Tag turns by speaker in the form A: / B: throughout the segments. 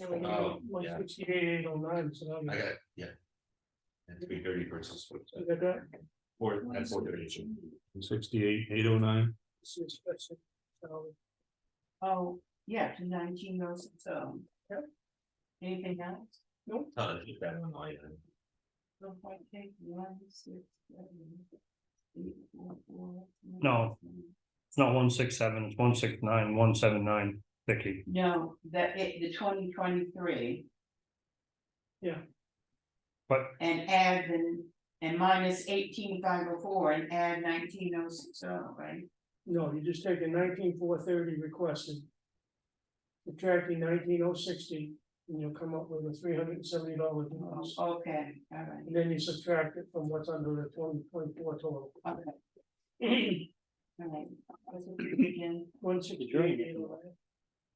A: And we
B: Oh,
A: got one
B: yeah.
A: sixty-eight, eight oh nine, so. that'll be-
B: I got, it, yeah. And three thirty versus four,
A: You got that?
B: uh, four, that's four thirty.
C: Sixty-eight, eight oh nine.
A: This is- that's it. So,
D: Oh, yeah, to nineteen goes, so.
A: Yep.
D: Anything else?
B: Uh, keep that in mind.
D: Don't quite take one, six, seven, eight, four, four, nine,
C: No.
D: seven.
C: It's not one six seven, it's one six nine, one seven nine, Vicky.
D: No, that it, the twenty twenty-three.
A: Yeah.
C: But-
D: And add the, and minus eighteen five oh four and add nineteen oh six oh, right?
A: no, you just take the nineteen four thirty requested. Subtracting nineteen oh sixty, and you'll come up with a three hundred and seventy dollar
D: Oh,
A: difference.
D: Okay, all right,
A: And then you subtract it from what's under the twenty point four total.
D: okay, all right. Let's look at it again.
A: One sixty-eight, eight oh nine.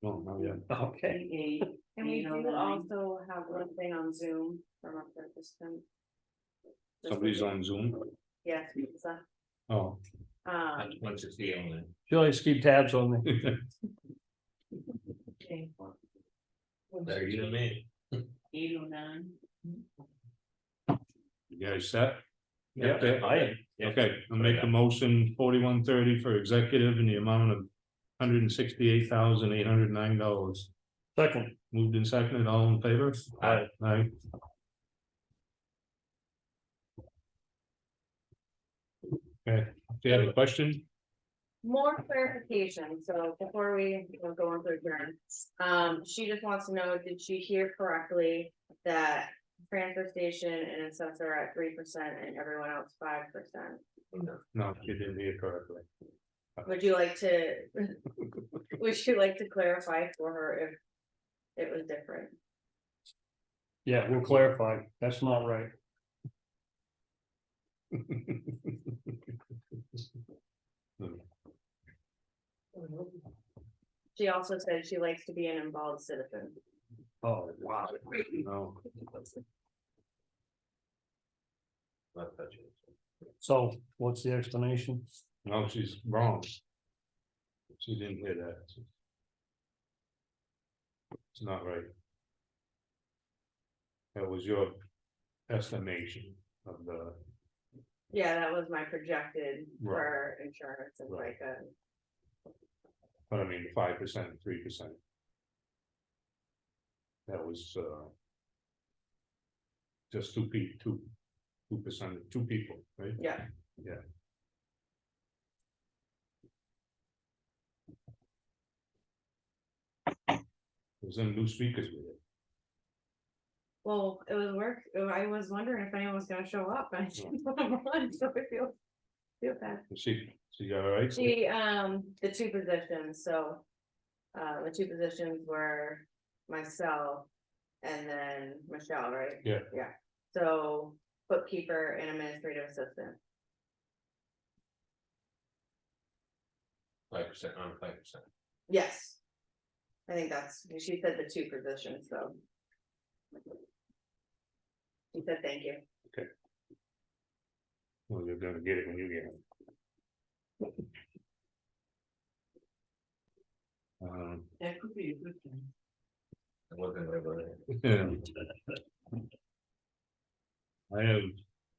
B: No, no, yeah.
C: Okay.
D: Eight, oh
E: And we
D: You know,
E: do
D: then I-
E: also have one thing on Zoom from our participant. Just like-
B: on Zoom.
E: Yes, Lisa.
C: Oh.
E: um,
B: That's one sixty only.
C: She always keep tabs on me.
B: Better you than me.
D: eight oh nine.
F: You guys set?
B: Yeah,
F: Okay.
B: I am. Yeah.
F: Okay, I'll make a motion forty-one thirty for executive in the amount of hundred and sixty-eight thousand eight hundred nine dollars.
C: Second,
F: Moved and seconded, all in favor?
B: Aye.
F: Aye. Okay, do you have a question?
E: more clarification, so before we go on to adjourn. Um, she just wants to know, did she hear correctly that transfer station and assessor are at three percent and everyone else five percent?
F: No, you didn't hear correctly.
E: Would you like to? Would you like to clarify for her if? It was different,
C: yeah, we'll clarify. That's not right.
E: she also said she likes to be an involved citizen.
C: Oh, wow.
F: No,
B: Not touching it.
C: So what's the explanation?
F: no, she's wrong. She didn't hear that. It's not right. That was your estimation of the,
E: Yeah, that was my projected for
F: Right.
E: insurance and
F: Right.
E: like a.
F: but I mean, five percent, three percent. That was, uh. Just two people, two, two percent, two people, right?
E: Yeah.
F: Yeah. There's some new speakers with it.
E: Well, it was work, I was wondering if anyone was gonna show up, and I didn't want to run, so I feel. Feel bad.
F: Is She, she all right?
E: She, um, the two positions, so. Uh, the two positions were myself and then Michelle, right?
F: Yeah.
E: Yeah, so bookkeeper and administrative assistant,
B: Five percent on five percent.
E: yes. I think that's, she said the two positions, so. She said, thank you.
F: Well, you're gonna get it when you get it. Um,
D: That could be a good thing.
B: It wasn't really.
F: I have,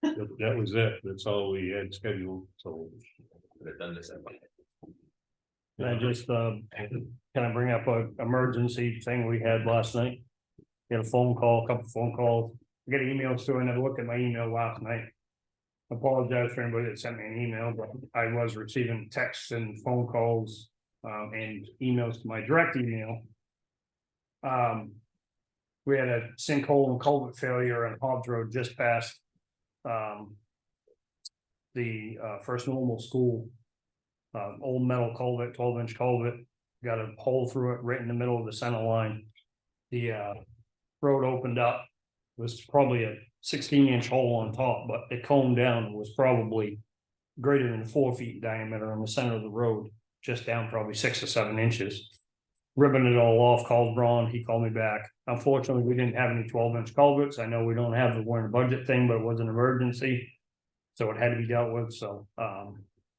F: that- that was it, that's all we had scheduled, so.
B: Could have done this. at one.
C: Can I just, uh, can I bring up a emergency thing we had last night? Get a phone call, a couple phone calls, I got emails too, I never looked at my email last night. Apologize for anybody that sent me an email, but I was receiving texts and phone calls, um, and emails to my direct email. Um. We had a sinkhole and culvert failure on Hobbs Road just past. Um. The, uh, first normal school uh, old metal culvert, twelve inch culvert, got a hole through it right in the middle of the center line. The, uh, road opened up, was probably a sixteen inch hole on top, but the cone down was probably greater than four feet diameter on the center of the road, just down probably six or seven inches. Ripping it all off, called Ron, he called me back. Unfortunately, we didn't have any twelve inch culverts. I know we don't have the warrant budget thing, but it was an emergency. So it had to be dealt with, so, um,